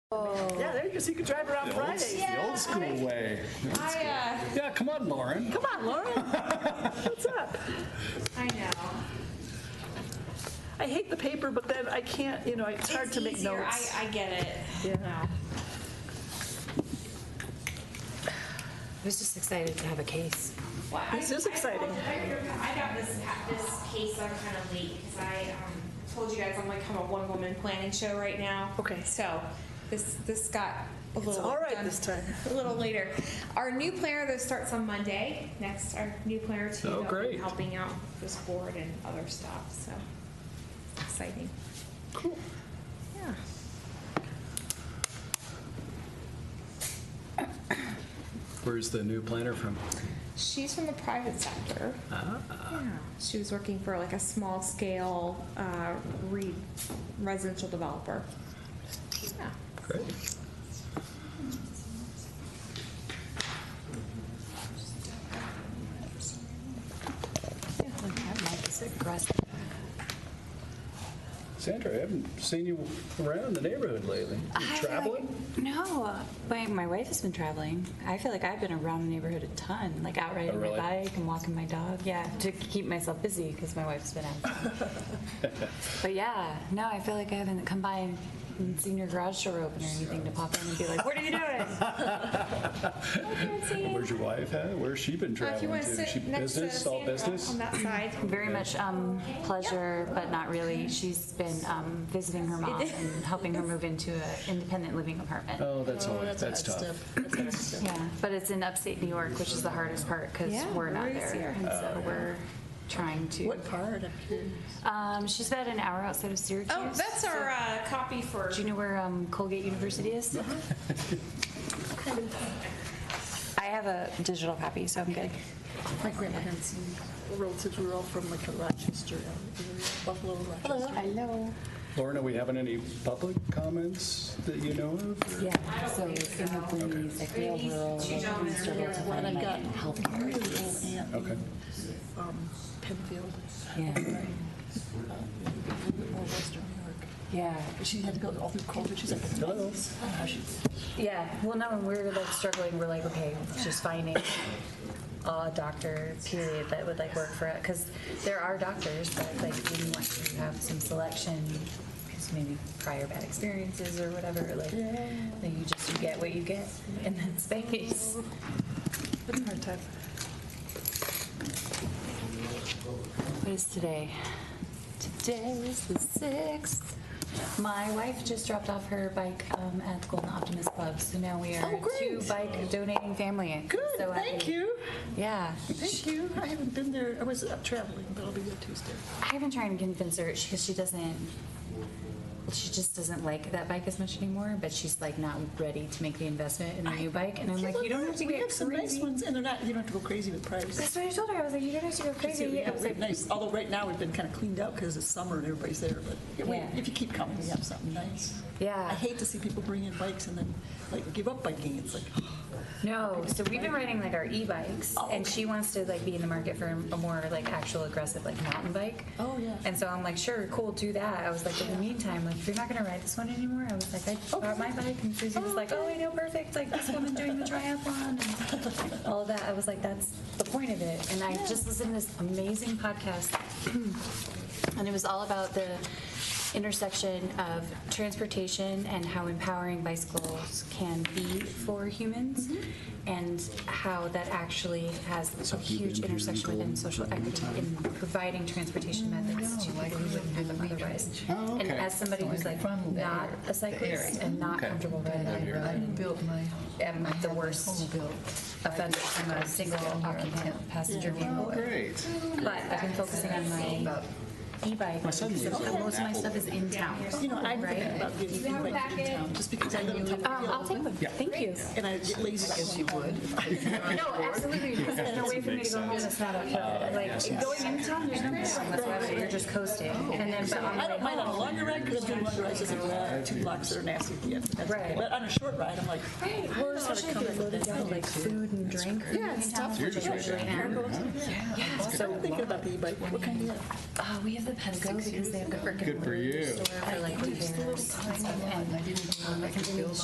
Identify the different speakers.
Speaker 1: there because he could drive around Fridays.
Speaker 2: The old school way.
Speaker 3: I,
Speaker 2: Yeah, come on, Lauren.
Speaker 1: Come on, Lauren. What's up?
Speaker 3: uh, I know.
Speaker 1: I hate the paper, but then I can't, you know, it's hard
Speaker 3: It's
Speaker 1: to make
Speaker 3: easier.
Speaker 1: notes.
Speaker 3: I, I get it.
Speaker 1: Yeah.
Speaker 3: No.
Speaker 4: I was just excited to have a case.
Speaker 3: Well, I-
Speaker 1: This is
Speaker 3: I told-
Speaker 1: exciting.
Speaker 3: I I got this, this case on kind of late because I um, told you guys I'm like, I'm a one-woman planning show right now.
Speaker 1: Okay.
Speaker 3: So this, this got a little.
Speaker 1: all right
Speaker 3: done
Speaker 1: this time.
Speaker 3: A little later. Our new planner, that starts on Monday. Next, our new planner too.
Speaker 2: Oh,
Speaker 3: that'll be
Speaker 2: great.
Speaker 3: Helping out this board and other stuff, so exciting. Cool. Yeah.
Speaker 2: Where's the new planner from?
Speaker 3: She's from the private sector.
Speaker 2: Ah.
Speaker 3: Yeah. She was working for like a small scale uh, re- residential developer. Yeah.
Speaker 2: Great. Sandra, I haven't seen you around the neighborhood lately. You traveling?
Speaker 5: No, my, my wife has been traveling. I feel like I've been around the neighborhood a ton, like out riding
Speaker 2: really?
Speaker 5: my bike and walking my dog. Yeah, to keep myself busy because my wife's been out. but yeah, no, I feel like I haven't come by and seen your garage door open or anything to pop in and be like, "What are you doing?"
Speaker 2: Where's your wife, huh? Where's she been
Speaker 3: Uh, if you
Speaker 2: traveling
Speaker 3: want
Speaker 2: to?
Speaker 3: to
Speaker 2: She
Speaker 3: sit next to
Speaker 2: business, all
Speaker 3: Sandra
Speaker 2: business?
Speaker 3: on that side.
Speaker 5: Very much um, pleasure, but not really. She's been um, visiting her mom and helping her move into an independent living apartment.
Speaker 2: Oh, that's all, right. that's tough.
Speaker 5: Yeah, but it's in upstate New York, which is the hardest part because
Speaker 3: Yeah,
Speaker 5: we're not
Speaker 3: where is
Speaker 5: there.
Speaker 3: here?
Speaker 5: And
Speaker 2: Oh,
Speaker 5: so we're trying to. What part Um, she's about an hour outside of Syracuse.
Speaker 3: Oh, that's our uh, copy for.
Speaker 5: Do you know where um, Colgate University is? I have a digital copy, so I'm good.
Speaker 6: My grandparents relative were all from like Rochester, area, Buffalo, Rochester.
Speaker 5: Hello.
Speaker 2: Lauren, are we having any public comments that you know of?
Speaker 5: Yeah, so in the Queens, like real rural, we struggle to
Speaker 6: And I
Speaker 5: find
Speaker 6: got
Speaker 5: like healthcare.
Speaker 6: really little aunt
Speaker 2: Okay.
Speaker 6: in, um, Penfield,
Speaker 5: Yeah,
Speaker 6: or Western New York.
Speaker 5: yeah.
Speaker 6: But She had to go all through COVID. She's like,
Speaker 2: Hello.
Speaker 6: how she
Speaker 5: Yeah, well, no, when we're like struggling, we're like, okay, just finding a doctor, period, that would like work for it. Because there are doctors, but like we want to have some selection, because maybe prior bad experiences or whatever, like, then you just, you get what you get in that space.
Speaker 1: It's a hard time.
Speaker 5: What is today? Today is the sixth. My wife just dropped off her bike um, at the Golden Optimist Club, so now we are
Speaker 6: Oh,
Speaker 5: a two
Speaker 6: great.
Speaker 5: bike donating family.
Speaker 6: Good,
Speaker 5: So happy.
Speaker 6: thank you.
Speaker 5: Yeah.
Speaker 6: Thank you. I haven't been there. I was uh, traveling, but I'll be there Tuesday.
Speaker 5: I've been trying to convince her because she doesn't. She just doesn't like that bike as much anymore, but she's like not ready to make the investment in a new bike. And I'm like, you don't have to
Speaker 6: We
Speaker 5: get
Speaker 6: have some nice
Speaker 5: crazy.
Speaker 6: ones, and they're not, you don't have to go crazy with price.
Speaker 5: That's what I told her. I was like, you don't have to go crazy.
Speaker 6: We
Speaker 5: I
Speaker 6: have
Speaker 5: was
Speaker 6: really
Speaker 5: like,
Speaker 6: nice, although right now we've been kind of cleaned out because it's summer and everybody's there, but yeah, we-
Speaker 5: Yeah.
Speaker 6: if you keep coming, we have something nice.
Speaker 5: Yeah.
Speaker 6: I hate to see people bring in bikes and then like give up biking. It's like,
Speaker 5: No, so we've been riding like our e-bikes,
Speaker 6: Oh,
Speaker 5: and
Speaker 6: okay.
Speaker 5: she wants to like be in the market for a more like actual aggressive like mountain bike.
Speaker 6: Oh, yeah.
Speaker 5: And so I'm like, sure, cool, do that. I was like, in the meantime, like if you're not gonna ride this one anymore, I was like, I
Speaker 6: Oh.
Speaker 5: bought my bike, and Susie was like, oh, I know, perfect, like this woman doing the triathlon and all of that. I was like, that's the point of it. And I just listened to this amazing podcast and it was all about the intersection of transportation and how empowering bicycles can be for humans
Speaker 2: Mm-hmm.
Speaker 5: and how that actually has a huge intersection within social equity in providing transportation
Speaker 2: Mm,
Speaker 5: methods to people who wouldn't have them otherwise.
Speaker 2: Oh,
Speaker 5: And
Speaker 2: okay.
Speaker 5: as somebody who's like not a cyclist and not comfortable riding on the road,
Speaker 7: built my,
Speaker 5: am the worst offender. I'm not a single occupant passenger vehicle.
Speaker 2: Great.
Speaker 5: But I've been focusing on my e-bike. My son lives Most of my stuff is in town.
Speaker 6: you know, I'm thinking
Speaker 5: Right.
Speaker 6: about getting a bike in town just because I live in
Speaker 5: Um, I'll
Speaker 6: Tuckerville
Speaker 5: take them. Thank you.
Speaker 6: and I get lazy. I guess you would.
Speaker 5: No, absolutely, because there's no way for me to go home that's not up to, like, going in town, there's no way. That's why you're just coasting. And then, but on the
Speaker 6: I
Speaker 5: way
Speaker 6: don't mind on a
Speaker 5: home.
Speaker 6: longer ride because I do longer rides as well. uh, Two blocks that are nasty. Yeah, that's okay.
Speaker 5: Right.
Speaker 6: But on a short ride, I'm like,
Speaker 5: Well, especially if you're loaded down with like food and drink. Yeah, it's tough.
Speaker 2: You're just right down here.
Speaker 5: Yeah, so,
Speaker 6: I'm thinking about the e-bike. What kind do you have?
Speaker 5: uh, we have the Penco because they have the brick and
Speaker 2: Good for
Speaker 5: mortar
Speaker 2: you.
Speaker 5: store for like repairs and stuff. And I can